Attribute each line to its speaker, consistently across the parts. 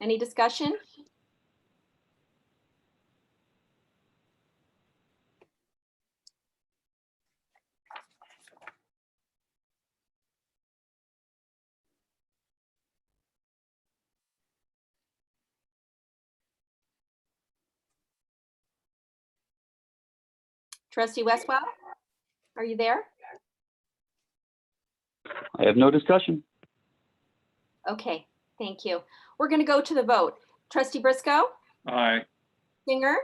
Speaker 1: Any discussion? Trustee Westwell, are you there?
Speaker 2: I have no discussion.
Speaker 1: Okay, thank you. We're going to go to the vote. Trustee Briscoe,
Speaker 3: Aye.
Speaker 1: Singer,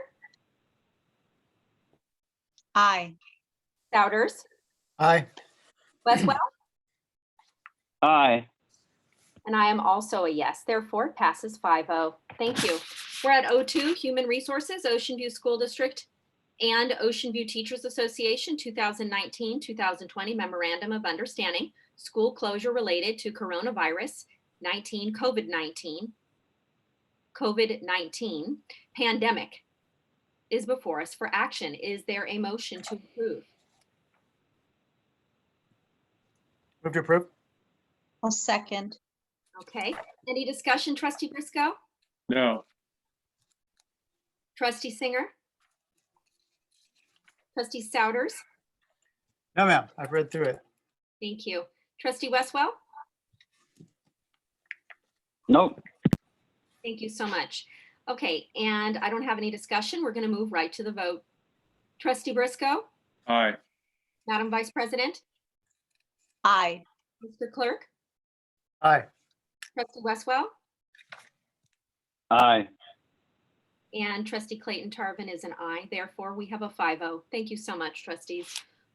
Speaker 4: Aye.
Speaker 1: Souders,
Speaker 5: Aye.
Speaker 1: Westwell,
Speaker 2: Aye.
Speaker 1: and I am also a yes. Therefore, it passes 5-0. Thank you. We're at O2, Human Resources, Ocean View School District and Ocean View Teachers Association 2019-2020 Memorandum of Understanding, School Closure Related to Coronavirus 19, COVID-19, COVID-19 Pandemic is before us for action. Is there a motion to approve?
Speaker 5: Move to approve?
Speaker 4: I'll second.
Speaker 1: Okay, any discussion, trustee Briscoe?
Speaker 3: No.
Speaker 1: Trustee Singer? Trustee Souders?
Speaker 5: No, ma'am. I've read through it.
Speaker 1: Thank you. Trustee Westwell?
Speaker 2: Nope.
Speaker 1: Thank you so much. Okay, and I don't have any discussion. We're going to move right to the vote. Trustee Briscoe?
Speaker 3: Aye.
Speaker 1: Madam Vice President?
Speaker 4: Aye.
Speaker 1: Mr. Clerk?
Speaker 5: Aye.
Speaker 1: Trustee Westwell?
Speaker 2: Aye.
Speaker 1: And trustee Clayton Tarvin is an aye. Therefore, we have a 5-0. Thank you so much, trustees.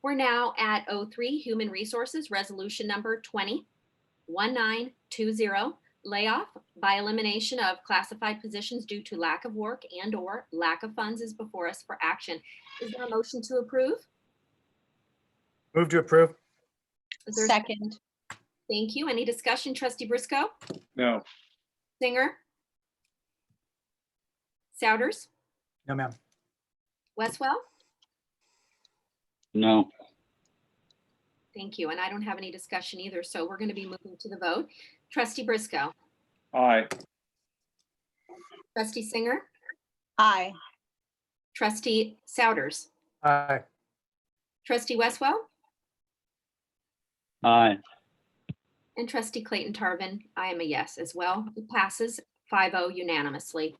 Speaker 1: We're now at 03, Human Resources, Resolution Number 20, 1920, layoff by elimination of classified positions due to lack of work and/or lack of funds is before us for action. Is there a motion to approve?
Speaker 5: Move to approve?
Speaker 1: Is there-
Speaker 4: Second.
Speaker 1: Thank you. Any discussion, trustee Briscoe?
Speaker 3: No.
Speaker 1: Singer? Souders?
Speaker 5: No, ma'am.
Speaker 1: Westwell?
Speaker 2: No.
Speaker 1: Thank you. And I don't have any discussion either, so we're going to be moving to the vote. Trustee Briscoe,
Speaker 3: Aye.
Speaker 1: trustee Singer,
Speaker 4: Aye.
Speaker 1: trustee Souders,
Speaker 5: Aye.
Speaker 1: trustee Westwell,
Speaker 2: Aye.
Speaker 1: and trustee Clayton Tarvin. I am a yes as well. It passes 5-0 unanimously.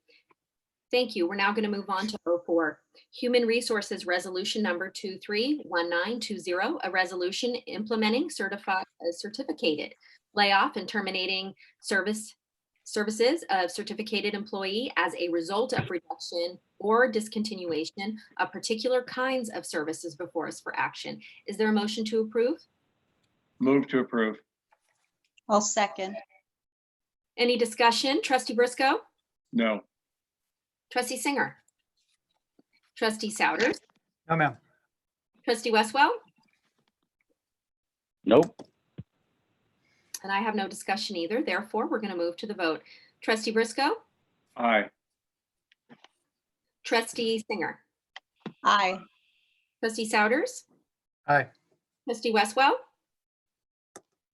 Speaker 1: Thank you. We're now going to move on to 04, Human Resources Resolution Number 231920, a resolution implementing certified, certificated layoff and terminating service, services of certificated employee as a result of reduction or discontinuation of particular kinds of services before us for action. Is there a motion to approve?
Speaker 3: Move to approve.
Speaker 4: I'll second.
Speaker 1: Any discussion? Trustee Briscoe?
Speaker 3: No.
Speaker 1: Trustee Singer. Trustee Souders.
Speaker 5: No, ma'am.
Speaker 1: Trustee Westwell.
Speaker 2: Nope.
Speaker 1: And I have no discussion either. Therefore, we're going to move to the vote. Trustee Briscoe.
Speaker 3: Aye.
Speaker 1: Trustee Singer.
Speaker 4: Aye.
Speaker 1: Trustee Souders.
Speaker 5: Aye.
Speaker 1: Trustee Westwell.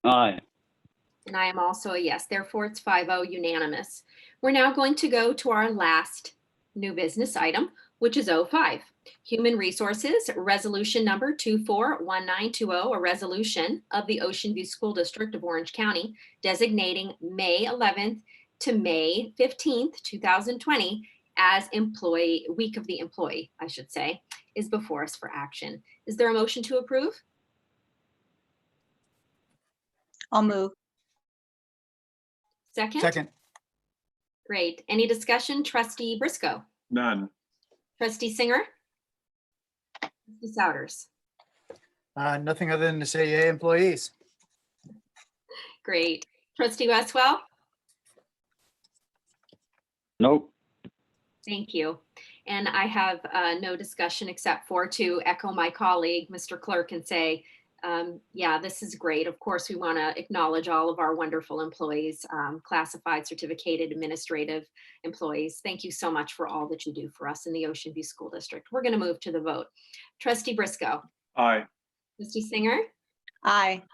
Speaker 2: Aye.
Speaker 1: And I am also a yes. Therefore, it's 5-0 unanimous. We're now going to go to our last new business item, which is 05. Human Resources, Resolution Number 241920, oh, a resolution of the Ocean View School District of Orange County designating May 11th to May 15th, 2020 as Employee, Week of the Employee, I should say, is before us for action. Is there a motion to approve?
Speaker 4: I'll move.
Speaker 1: Second?
Speaker 5: Second.
Speaker 1: Great. Any discussion? Trustee Briscoe?
Speaker 3: None.
Speaker 1: Trustee Singer? Trustee Souders?
Speaker 5: Uh, nothing other than to say yay, employees.
Speaker 1: Great. Trustee Westwell?
Speaker 2: Nope.
Speaker 1: Thank you. And I have uh, no discussion except for to echo my colleague, Mr. Clerk, and say, um, yeah, this is great. Of course, we want to acknowledge all of our wonderful employees, um, classified, certificated, administrative employees. Thank you so much for all that you do for us in the Ocean View School District. We're going to move to the vote. Trustee Briscoe?
Speaker 3: Aye.
Speaker 1: Trustee Singer?
Speaker 4: Aye.